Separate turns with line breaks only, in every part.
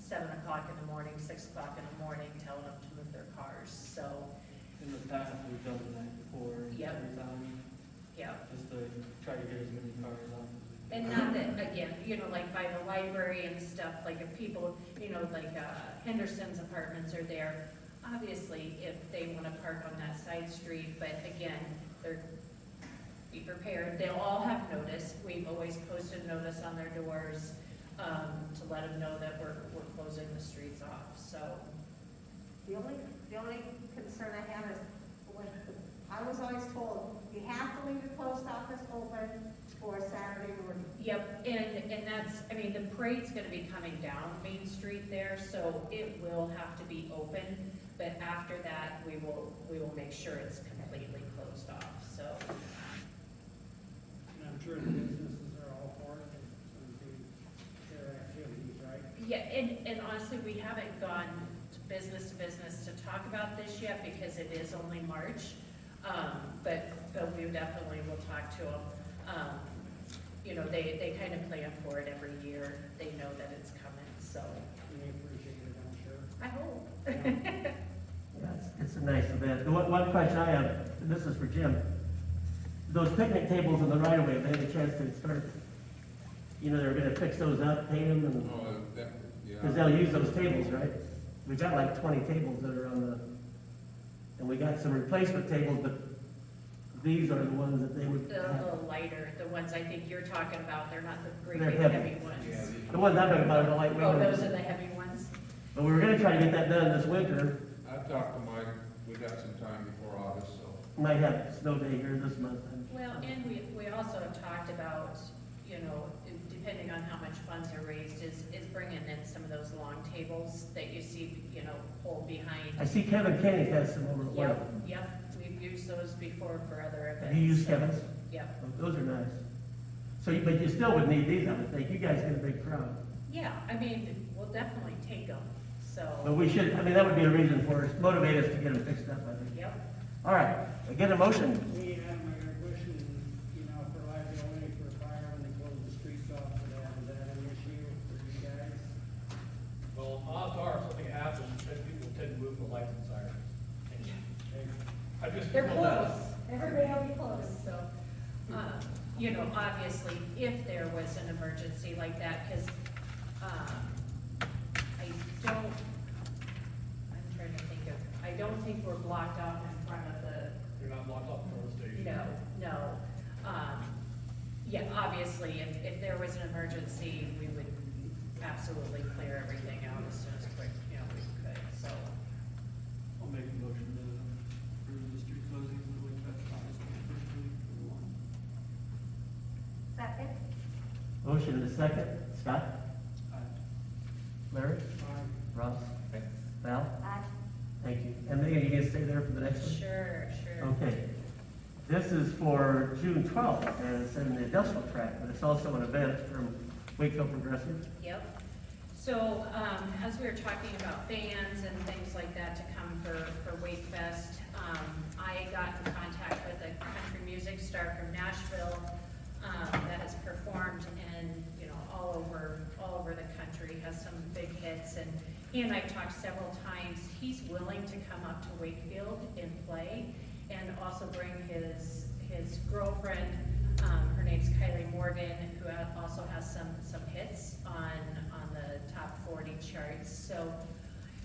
seven o'clock in the morning, six o'clock in the morning, telling them to move their cars, so,
In the past, we've done the night before, and
Yep.
every time,
yeah.
just to try to get as many cars out as we can.
And not that, again, you know, like by the library and stuff, like if people, you know, like uh, Henderson's apartments are there, obviously, if they wanna park on that side street, but again, they're, be prepared, they'll all have notice, we've always posted notice on their doors, um, to let them know that we're, we're closing the streets off, so,
The only, the only concern I have is, when, I was always told, you have to leave the post office open for Saturday morning.
yep, and, and that's, I mean, the parade's gonna be coming down Main Street there, so it will have to be open, but after that, we will, we will make sure it's completely closed off, so,
And I'm sure the businesses are all for it, and some of the- their activities, right?
yeah, and, and honestly, we haven't gone to business to business to talk about this yet, because it is only March, um, but, but we definitely will talk to them. Um, you know, they, they kind of plan for it every year, they know that it's coming, so,
And they appreciate it, I'm sure.
I hope.
Yeah.
Yeah, it's- It's a nice event. The One, one question I have, and this is for Jim. Those picnic tables in the right of way, have they had a chance to start, you know, they're gonna fix those up, paint them, and,
Oh, that, yeah.
cause they'll use those tables, right? We got like twenty tables that are on the, and we got some replacement tables, but these are the ones that they would
The
have.
little lighter, the ones I think you're talking about, they're not the great
They're
big
heavy.
heavy
Yeah,
ones.
The ones I'm talking about are the lightweight
Oh, those are
ones.
the heavy ones?
But we were gonna try to get that done this winter.
they- I've talked to Mike, we got some time before August, so.
Might have snow day here this month.
Well, and we, we also have talked about, you know, depending on how much funds are raised, is, is bringing in some of those long tables that you see, you know, pulled
I
behind.
see Kevin Kenny has some over at one.
Yep, yep, we've used those before for other events.
Have you used
so-
Kevin's?
Yep,
Oh, Those are nice. So, you- but you still would need these, I would think. You guys get a big crowd.
yeah, I mean, we'll definitely take them,
But
so,
we should, I mean, that would be a reason for us, motivate us to get them fixed up, I think.
yep.
All right, I get a motion.
We had my question, you know, for liability for fire when they close the streets off, for that, is that an issue for you guys?
Well, odds are, if something happens, then people tend to move the lights and sirens. I just.
They're
feel that.
close, everybody will be close, so, uh, you know, obviously, if there was an emergency like that, because, um, I don't, I'm trying to think of, I don't think we're blocked off in front of the,
You're not locked up from the station.
no, no. Um, yeah, obviously, if, if there was an emergency, we would absolutely clear everything out as soon as quick, you know, we could, so.
I'll make a motion to approve the street closings in the Lake Fest August first week of one.
Second?
Motion and a second. Scott? Larry?
Fine.
Ross? Val?
Aye.
Thank you. And Megan, you gonna stay there for the next one?
Sure, sure.
Okay. This is for June twelfth, and it's in the industrial track, but it's also an event from Wakefield Progressive.
Yep. So, um, as we were talking about bands and things like that to come for, for Wake Fest, um, I got in contact with a country music star from Nashville, um, that has performed in, you know, all over, all over the country, has some big hits, and he and I talked several times. He's willing to come up to Wakefield and play, and also bring his, his girlfriend, um, her name's Kylie Morgan, who ha- also has some, some hits on, on the top forty charts. So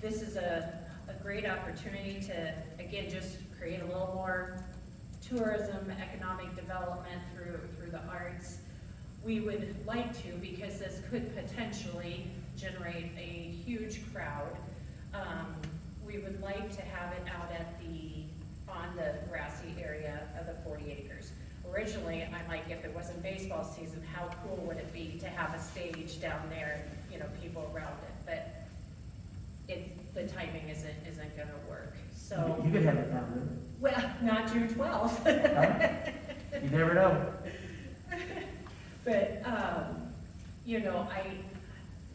this is a, a great opportunity to, again, just create a little more tourism, economic development through, through the arts. We would like to, because this could potentially generate a huge crowd. Um, we would like to have it out at the, on the grassy area of the forty acres. Originally, I'm like, if it wasn't baseball season, how cool would it be to have a stage down there, you know, people around it? But it, the timing isn't, isn't gonna work, so,
You could have it down
well, not June twelfth.
there. Huh? You never know.
But, um, you know, I,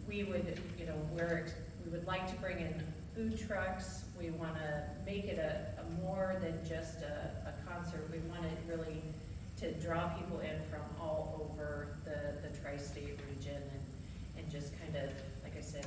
we would, you know, we're, we would like to bring in food trucks. We wanna make it a, a more than just a, a concert. We want it really to draw people in from all over the, the tri-state region and, and just kind of, like I said,